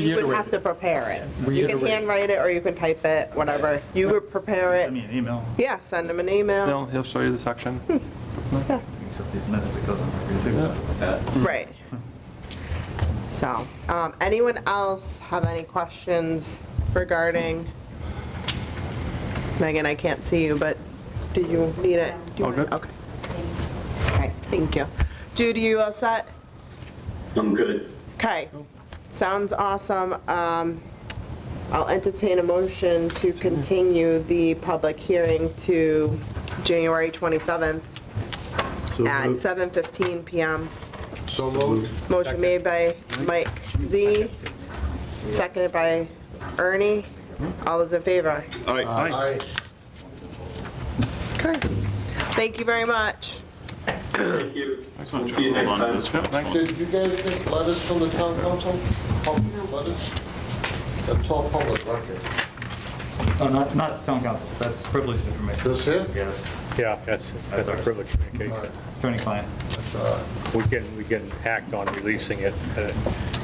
You would Reiterate have it. to prepare it. You can Reiterate. handwrite it or you can type it, whatever. You would prepare I mean, it. an email. Yeah, send them an email. He'll, he'll show you the section. Except these minutes, it doesn't really do something like that. Right. So, um, anyone else have any questions regarding? Megan, I can't see you, but do you need it? Do you All want it? good. Okay. Okay, thank you. Jude, you all set? I'm good. Okay, sounds awesome. Um, I'll entertain a motion to continue the public hearing to January 27th at 7:15 PM. So moved. Motion made by Mike Z, seconded by Ernie. All those in favor? All right. Aye. Okay. Thank you very much. Thank you. We'll see you next time. Did you guys get letters from the town council? Public Letters? That's all public record. Oh, not, not town council, that's privileged information, This it? Yeah, yeah, that's, that's a privileged All right, communication. attorney client. that's, uh, We can, we can act on releasing it. uh,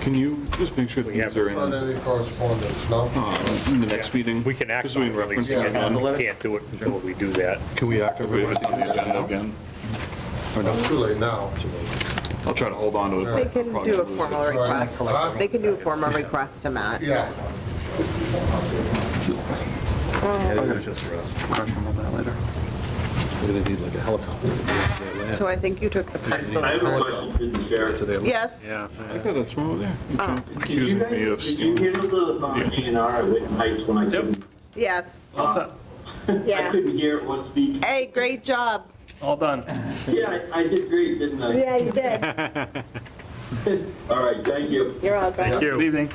Can you just make sure these are in Not uh, any correspondence, no? in the next meeting? We can act Just so we on can reference releasing it it. again. We Can't do it until we do that. Can we activate it on the agenda again? It's too late now. I'll try to hold on to it. They can Probably do a lose it. formal request. Huh? They can do a formal request to Matt. Yeah. So I think you took the pencil. I have a question for the chair. Yes? I thought that's one over there. Did Excuse you me guys, of did you stealing. handle the A and R at Witten Heights when I couldn't? Yes. uh, Yeah. I couldn't hear or speak. Hey, great job. All done. Yeah, I I did great, didn't I? you did. All right, thank you. You're all good. Good evening.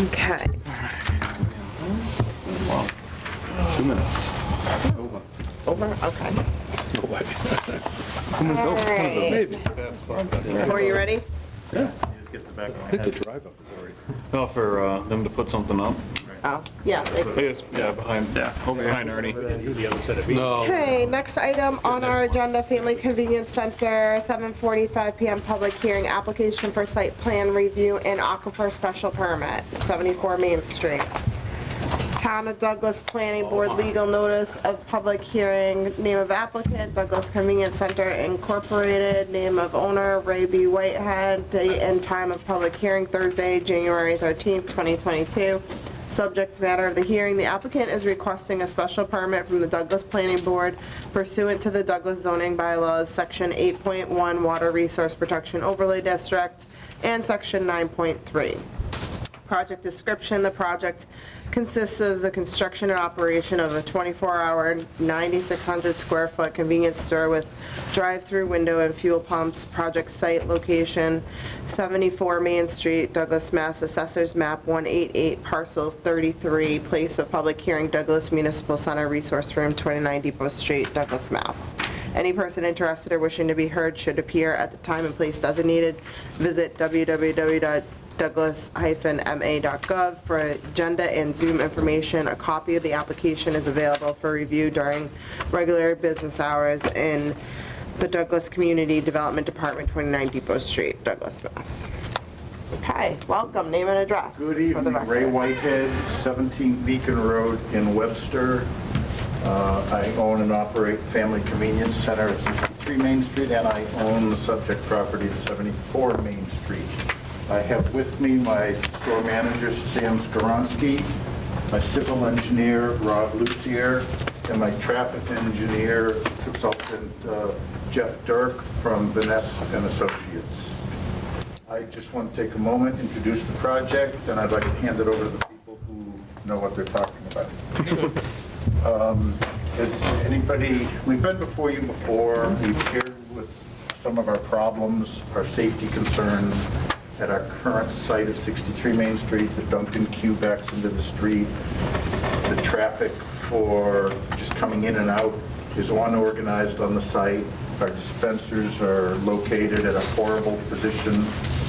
Okay. Two minutes. It's over? Okay. Someone's All over. right. Maybe. Are you ready? Oh, for uh, them to put something up. Oh, yeah. I guess, yeah, behind, over behind Ernie. The other set of Okay, next item on our agenda, Family Convenience Center, 7:45 PM, public hearing, application for site plan review and aquifer special permit, 74 Main Street. Town of Douglas Planning Board legal notice of public hearing, name of applicant, Douglas Convenience Center Incorporated, name of owner, Ray B. Whitehead, date and time of public hearing, Thursday, January 13th, 2022. Subject matter of the hearing, the applicant is requesting a special permit from the Douglas Planning Board pursuant to the Douglas zoning bylaws, Section 8.1 Water Resource Protection Overlay District, and Section 9.3. Project description, the project consists of the construction and operation of a 24-hour, 9,600-square-foot convenience store with drive-through window and fuel pumps, project site location, 74 Main Street, Douglas, Mass. Assessors Map 188, Parcel 33, place of public hearing, Douglas Municipal Center, Resource Room, 29 Depot Street, Douglas, Mass. Any person interested or wishing to be heard should appear at the time and place designated. Visit www douglas-ma.gov for agenda and Zoom information. A copy of the application is available for review during regular business hours in the Douglas Community Development Department, 29 Depot Street, Douglas, Mass. Okay, welcome, name and address. Good for the evening, Ray record. Whitehead, 17 Beacon Road in Webster. Uh, I own and operate Family Convenience Center at 63 Main Street, and I own the subject property at 74 Main Street. I have with me my store manager, Sam Skoronsky, my civil engineer, Rob Lucier, and my traffic engineer consultant, uh, Jeff Dirk from Vanessa and Associates. I just want to take a moment, introduce the project, and I'd like to hand it over to the people who know what they're talking about. Um, Has anybody, we've been before you before, we've shared with some of our problems, our safety concerns at our current site of 63 Main Street, the Duncan queue backs into the street, the traffic for just coming in and out is unorganized on the site. Our dispensers are located at a horrible position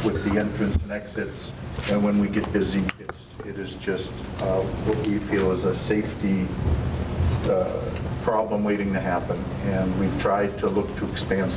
with the entrance and exits, and when we get busy, it's, it is just uh, what we feel is a safety uh, problem waiting to happen. And we've tried to look to expand